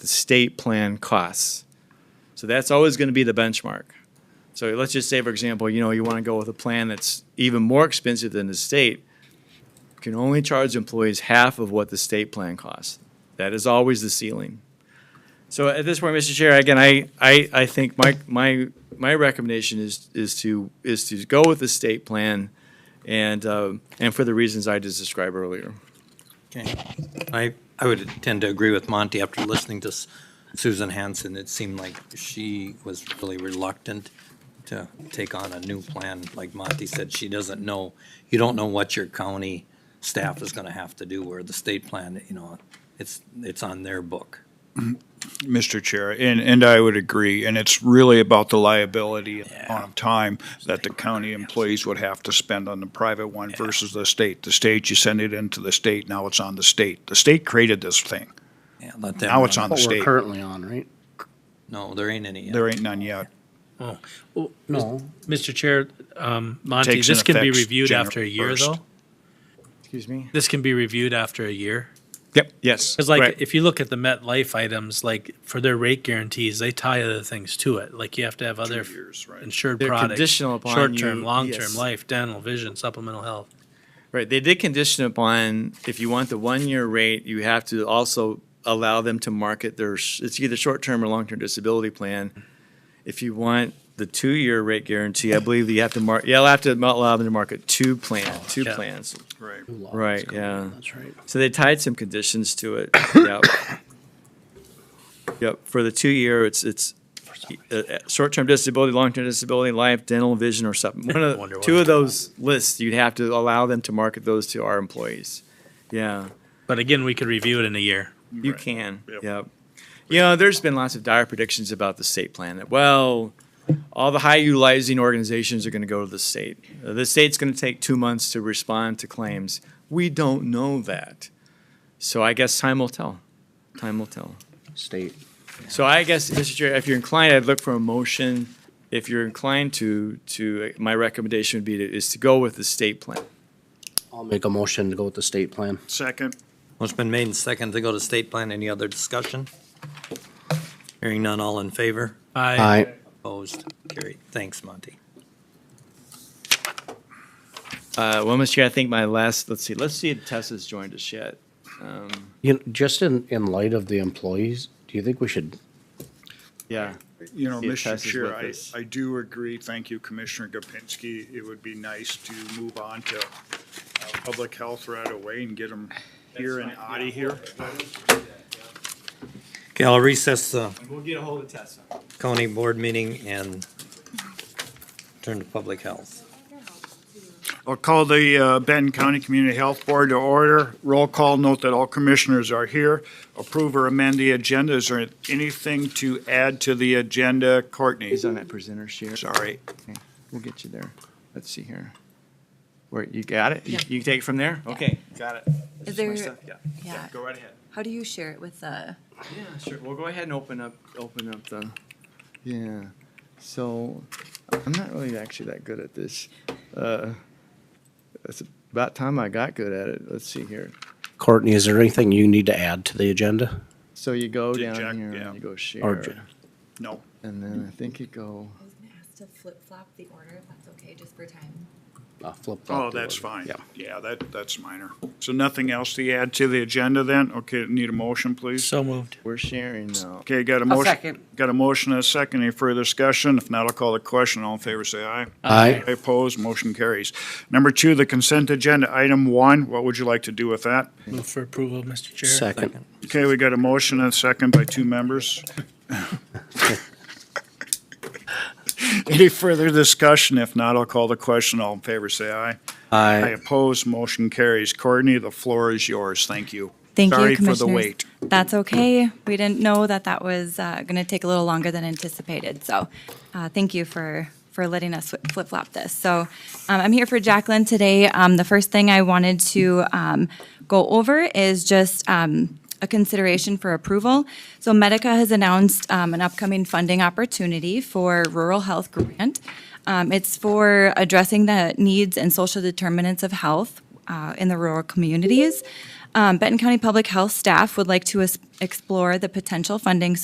the state plan costs. So that's always going to be the benchmark. So let's just say, for example, you know, you want to go with a plan that's even more expensive than the state, you can only charge employees half of what the state plan costs. That is always the ceiling. So at this point, Mr. Chair, again, I, I, I think my, my, my recommendation is, is to, is to go with the state plan and, uh, and for the reasons I just described earlier. Okay. I, I would tend to agree with Monty after listening to S- Susan Hanson. It seemed like she was really reluctant to take on a new plan. Like Monty said, she doesn't know, you don't know what your county staff is going to have to do where the state plan, you know, it's, it's on their book. Mr. Chair, and, and I would agree, and it's really about the liability and the amount of time that the county employees would have to spend on the private one versus the state. The state, you send it into the state, now it's on the state. The state created this thing. Yeah, let them. Now it's run. on the What we're state. currently on, right? No, there ain't any. yet. There ain't none yet. No. Mr. Chair, um, Monty, Takes in this can be effect reviewed January after a year, 1st. though? Excuse me? This can be reviewed after a year? Yep, yes. Because like, correct. if you look at the Met Life items, like, for their rate guarantees, they tie other things to it. Like, you have to have other years, right. insured They're products. conditional upon Short-term, you- yes. long-term, life, dental, vision, supplemental health. Right, they did condition upon, if you want the one-year rate, you have to also allow them to market their, sh- it's either short-term or long-term disability plan. If you want the two-year rate guarantee, I believe that you have to mark, you'll have to allow them to market two plan, two Yeah. plans. Right. Right, yeah. That's right. So they tied some conditions to it. Yep. Yep, for the two-year, it's, it's uh, uh, short-term disability, long-term disability, life, dental, vision, or something. One of, Wonder the- what two of it's about. those lists, you'd have to allow them to market those to our employees. Yeah, But again, we could review it in a year. you can, yep. You know, there's been lots of dire predictions about the state plan. that, Well, all the high utilizing organizations are gonna go to the state. Uh, The state's gonna take two months to respond to claims. We don't know that. So I guess time will tell. Time will tell. State. So I guess, Mr. Chair, if you're inclined, I'd look for a motion. If you're inclined to, to, my recommendation would be to, is to go with the state plan. I'll make a motion to go with the state plan. Second. Well, it's been made and second to go to state plan. Any other discussion? Hearing none, all in favor? I, Aye. Opposed? Carried. Thanks, Monty. Uh, well, Mr. Chair, I think my last, let's see, let's see if Tessa's joined us yet. You, know, just in, in light of the employees, do you think we should, Yeah. You know, See if Mr. Tess is Chair, with I, us. I do agree. Thank you, Commissioner Gopinski. It would be nice to move on to uh, public health right away and get them here and out of here. Okay, I'll recess the We'll get a hold of Tessa. county board meeting and turn to public health. I'll call the uh, Benton County Community Health Board to order. Roll call, note that all commissioners are here. Approve or amend the agenda. Is there anything to add to the agenda? Courtney, He's on that presenter share. sorry. We'll get you there. Let's see here. Where, you got it? You you can take it from there? Okay, got it. Is My there, stuff, yeah. yeah, Go right ahead. how do you share it with uh, the, Yeah, sure. We'll go ahead and open up, open up the, yeah. So I'm not really actually that good at this. Uh, It's about time I got good at it. Let's see here. Courtney, is there anything you need to add to the agenda? So you go Did down Jack- here yeah. and you go Or share, j- No. and then I think you go. I was gonna ask to flip flop the order, if that's okay, just for time. uh, flip flop Oh, the that's order? fine. Yeah. Yeah, that, that's minor. So nothing else to add to the agenda then? Okay, need a motion, please? so moved. We're sharing now. Okay, got a motion, got a motion and a second. Any further discussion? If not, I'll call the question. All in favor, say aye. Aye. Aye, Opposed, motion carries. Number two, the consent agenda, item one. What would you like to do with that? Move for approval, Mr. Chair. Second. Okay, we got a motion and a second by two members. Any further discussion? If not, I'll call the question. All in favor, say aye. I Aye. oppose, motion carries. Courtney, the floor is yours. Thank you. Thank you, Sorry for the Commissioners. wait. That's okay, we didn't know that that was, uh, gonna take a little longer than anticipated, so, uh, thank you for, for letting us flip flop this. So, um, I'm here for Jacqueline today, um, the first thing I wanted to, um, go over is just, um, a consideration for approval. So Medica has announced um, an upcoming funding opportunity for Rural Health Grant. Um, It's for addressing the needs and social determinants of health uh, in the rural communities. Um, Benton County Public Health staff would like to es- explore the potential funding